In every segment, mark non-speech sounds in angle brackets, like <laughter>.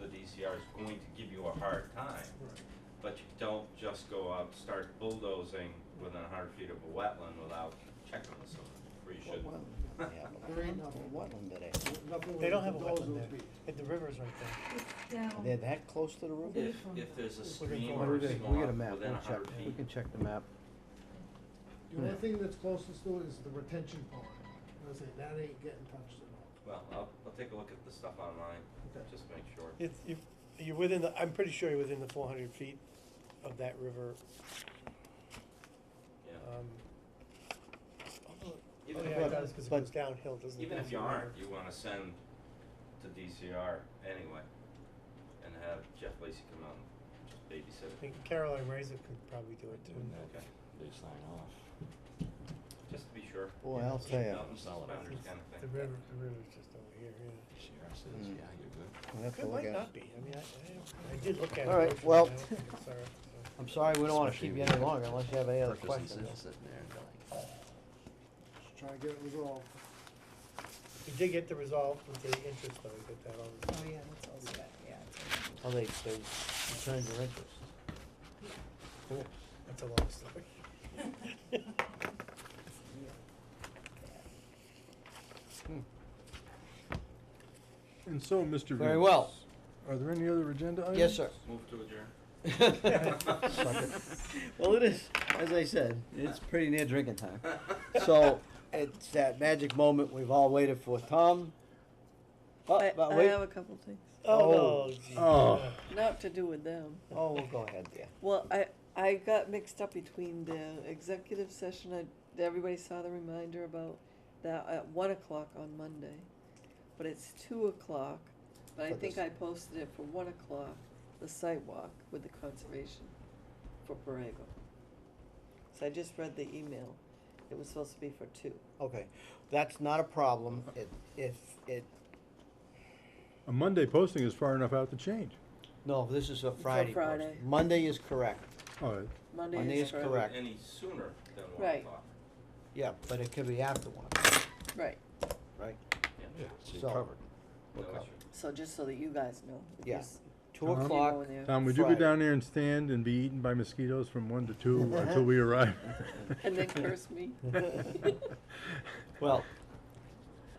the DCR is going to give you a hard time. But you don't just go out, start bulldozing within hundred feet of a wetland without checking with someone, or you What shouldn't. wetland do they have? There ain't nothing wetland today. They don't have a wetland there. It- The river's right there. It's down. They're that close to the river? If, if there's a We're gonna stream go- or We a get swamp we get a map, within we'll check, hundred feet. we can check the map. The only thing that's closest to it is the retention pond. I was saying, that ain't getting touched at all. Well, I'll, I'll take a look at the stuff online, Okay. just make sure. It's, you, you're within the, I'm pretty sure you're within the four hundred feet of that river, Yeah. um. although- Oh, Even if yeah, you- it does, cause it but- goes downhill, doesn't it? Even Goes if you down the aren't, river. you wanna send to DCR anyway, and have Jeff Lacy come out and just babysit I it. think Caroline Razor could probably do it too. Okay, They sign off. just to be sure. Boy, I'll tell ya, Belt and suspenders It's- kind of The thing. river, the river's just over here, yeah. DCR says, Mm. yeah, you're good. we'll have to It look at might it. not be, I mean, I, I don't, I did look at it. All right, originally, well- I don't think it's uh, all right, so. <laughs> I'm sorry, we don't wanna keep Especially you any when longer unless you have any other Perkins is questions. sitting there and they're like, Just try to get it resolved. We did get the resolve with the interest though, we got that on. Oh, yeah, that's all set, yeah. it's all Oh, they, they returned your interest. That's a long story. <laughs> And so, Mr. Very well. Venus, Are there any other agenda items? Yes, sir. Move to adjourn. <laughs> Well, it is, as I said, it's pretty near drinking time. So, it's that magic moment we've all waited for. Tom? Oh, I, but I wait. have a couple things. Oh. <laughs> Oh, geez. Oh. yeah. Not to do with them. Oh, we'll go ahead, dear. Well, I, I got mixed up between the executive session. I, everybody saw the reminder about that at one o'clock on Monday, but it's two o'clock. But I For think this- I posted it for one o'clock, the sidewalk with the conservation for Borrego. So I just read the email. It was supposed to be for two. Okay, that's not a problem. It, if, it, A Monday posting is far enough out to change. no, this is a Friday post. Friday. Monday is correct. All right, Monday, Monday is <laughs> Friday. correct. Any sooner than one Right. o'clock. Yeah, but it could be after one, Right. right? yeah, so So- you're covered. No Okay. issue. So just so that you guys know. Yeah. because Two Tom? you know o'clock. when they're- Tom, would you go Friday. down there and stand and be eaten by mosquitoes from one to two <laughs> until we arrive? And <laughs> then curse me. Well,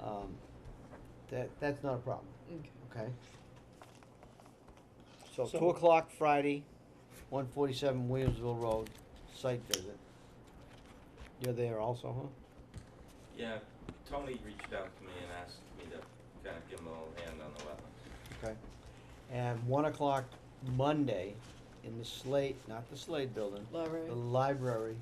um, that, that's not a problem, okay? So So- two o'clock Friday, one forty-seven Williamsville Road, site visit. You're there also, huh? Yeah, Tony reached out to me and asked me to kind of give him a little hand on the wetlands. Okay. And one o'clock Monday in the Slate, not the Slade Building, Library. the library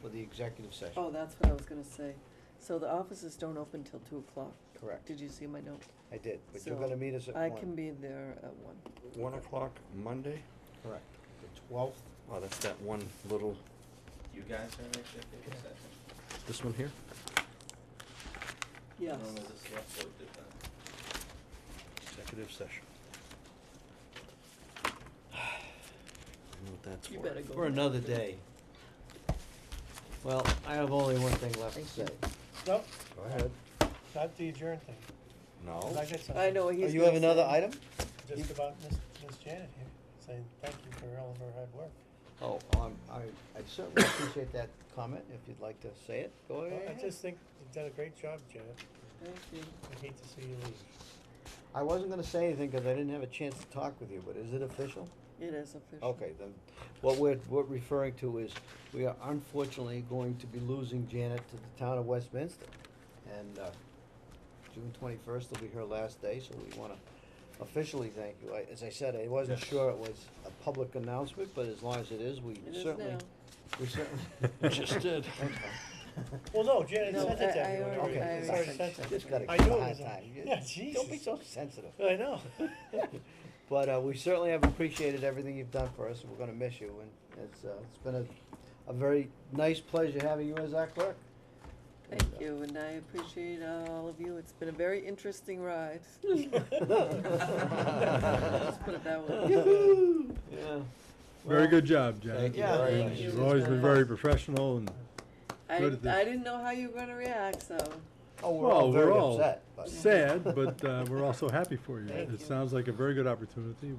for the executive session. Oh, that's what I was gonna say. So the offices don't open till two o'clock. Correct. Did you see my note? I did, but you're So gonna meet us at one. I can be there at one. One o'clock Monday? Correct. The twelfth, Oh, that's that one little, You guys are in executive session? this one here? Yes. Normally the select board did that. <sighs> Executive session. I know what that's for. You better go. for another day. Well, I have only one thing left to say. Thank Nope, Go ahead. not the adjourn thing, 'cause No? I got something. I know what Oh, he's you have gonna another say. item? Just about Miss, Miss Janet here, saying thank you for all of her hard work. Oh, um, I, I certainly appreciate that comment, if you'd like to say it, Oh, go Well, I ahead. just think you've done a great job, Janet. Thank you. I hate to see you leave. I wasn't gonna say anything, cause I didn't have a chance to talk with you, but is it official? It is official. Okay, then, what we're, we're referring to is, we are unfortunately going to be losing Janet to the town of Westminster. And, uh, June twenty-first will be her last day, so we wanna officially thank you. I, as I said, I wasn't Yes. sure it was a public announcement, but as long as it is, we It is certainly, now. we certainly. <laughs> Just did. Well, no, Janet No, sent it to I- I everyone. already- already. I It's already already sent sent it. to Just gotta I give knew a it hard was on- time. You- Yeah, Don't be Jesus. so sensitive. I know. <laughs> But uh, we certainly have appreciated everything you've done for us, and we're gonna miss you, and it's, uh, it's been a, a very nice pleasure having you as our clerk. <laughs> And, Thank uh, you, and I appreciate all of you. It's been a very <laughs> interesting ride. Let's put it that way. Yoo-hoo. Yeah. Very Well, good job, Janet. thank you Yeah, very thank much. you. You've always been very professional and I, Good at this. I didn't know how you were gonna react, so Oh, we're all Well, we're very all upset, but. sad, but, uh, we're also happy for you. Thank It sounds like a very good opportunity.